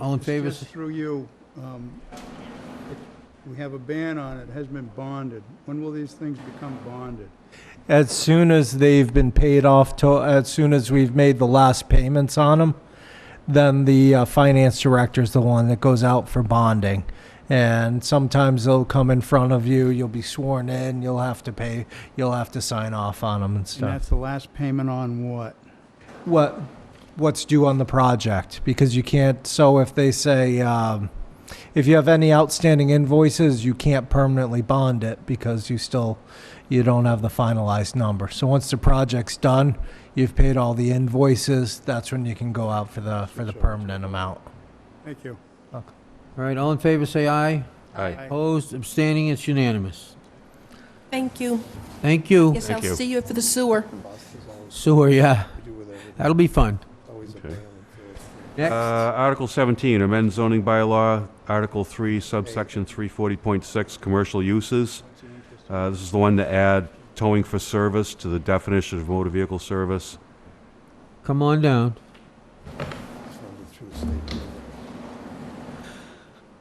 All in favor? Just through you, um, it- we have a ban on it, has been bonded. When will these things become bonded? As soon as they've been paid off, to, as soon as we've made the last payments on them, then the uh, finance director is the one that goes out for bonding. And sometimes they'll come in front of you, you'll be sworn in, you'll have to pay, you'll have to sign off on them and And stuff. that's the last payment on what? what what's due on the project because you can't so if they say um, if you have any outstanding invoices you can't permanently bond it because you still you don't have the finalized number so once the project's done you've paid all the invoices that's when you can go out for the for the permanent amount Thank you. All right, all in favor, say aye. Aye. Aye. Opposed, abstaining, it's unanimous. Thank you. Thank you. Yes, Thank I'll you. see you for the sewer. Sewer, yeah. That'll be fun. Uh, Next, Article 17, amend zoning bylaw, Article 3, subsection 340.6, commercial uses. Uh, This is the one to add towing for service to the definition of motor vehicle service. come on down.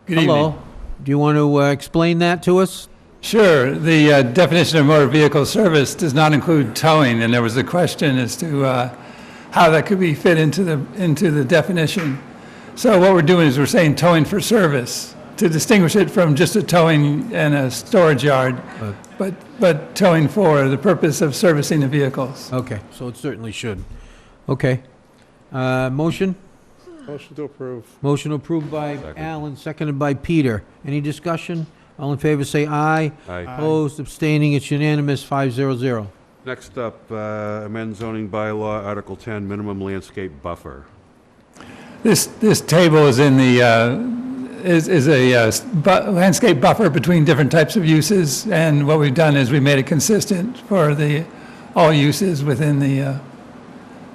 Good Hello. evening. Do you want to uh, explain that to us? Sure, the uh, definition of motor vehicle service does not include towing, and there was a question as to uh, how that could be fit into the, into the definition. So what we're doing is we're saying towing for service, to distinguish it from just a towing and a storage yard, but, but towing for the purpose of servicing the vehicles. Okay, so it certainly should. Okay. Uh, Motion? Motion to approve. Motion approved by Second. Alan, seconded by Peter. Any discussion? All in favor, say aye. Aye. Opposed, abstaining, it's unanimous, five zero zero. Next up, uh, amend zoning bylaw, Article 10, minimum landscape buffer. This, this table is in the, uh, is, is a uh, s- bu- landscape buffer between different types of uses, and what we've done is we made it consistent for the, all uses within the, uh,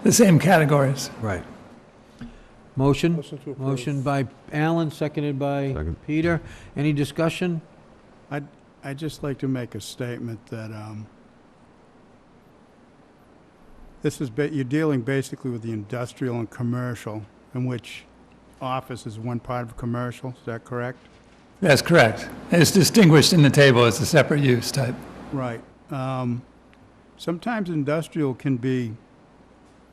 the same categories. Right. Motion? Motion to Motion by Alan, seconded by Second. Peter. Any discussion? I'd just like to make a statement that, um, this is, ba- you're dealing basically with the industrial and commercial, in which office is one part of commercial, is that correct? That's correct. It's distinguished in the table as a separate use type. Right. Um, Sometimes industrial can be,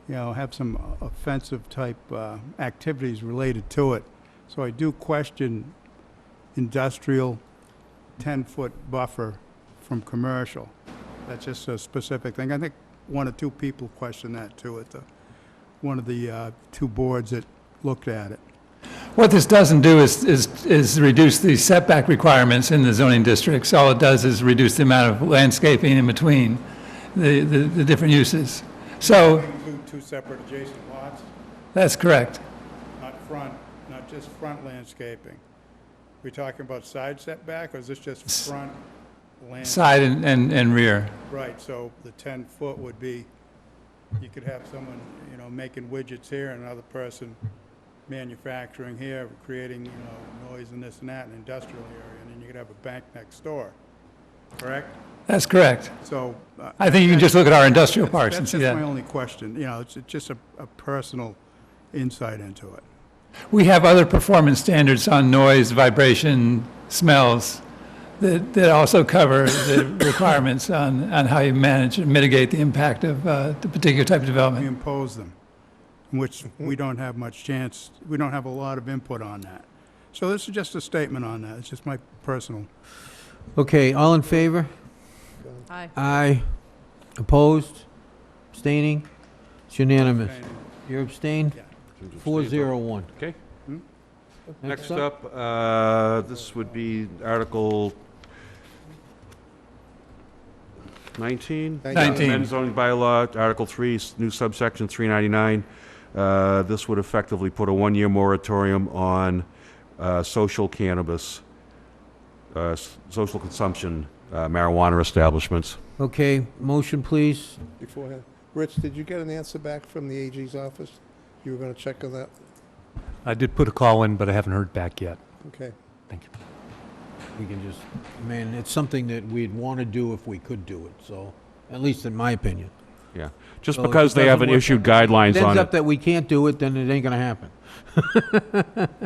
you know, have some offensive type uh, activities related to it. So I do question industrial 10-foot buffer from commercial. That's just a specific thing. I think one or two people questioned that too at the, one of the uh, two boards that looked at it. What this doesn't do is, is, is reduce the setback requirements in the zoning districts. All it does is reduce the amount of landscaping in between the, the, the different uses. So, Include two separate adjacent lots? that's correct. Not front, not just front landscaping. We talking about side setback, or is this just S- front land? Side and, and, and rear. Right, so the 10-foot would be, you could have someone, you know, making widgets here, and another person manufacturing here, creating, you know, noise and this and that in industrial area, and then you could have a bank next door, correct? That's correct. So. uh, I think you can just look at our industrial that's- parks and see That's my that. only question, you know, it's it's just a a personal insight into it. We have other performance standards on noise, vibration, smells that, that also cover the requirements on, on how you manage and mitigate the impact of uh, the particular type we of development. impose them, which we don't have much chance, we don't have a lot of input on that. So this is just a statement on that, it's just my personal. Okay, all in favor? Aye. Aye. Opposed? Abstaining? It's unanimous. You're abstained? Four zero one. Okay. Next up, uh, this would be Article 19? Nineteen. Uh, Amend zoning bylaw, Article 3, s- new subsection 399. Uh, This would effectively put a one-year moratorium on uh, social cannabis, uh, s- social consumption uh, marijuana establishments. Okay, motion, please. beforehand. Rich, did you get an answer back from the AG's office? You were going to check on that? I did put a call in, but I haven't heard back yet. Okay. We can just, I mean, it's something that we'd want to do if we could do it, so, at least in my opinion. Yeah, just So it because they doesn't haven't work- issued guidelines If it on ends it. up that we can't do it, then it ain't going to happen.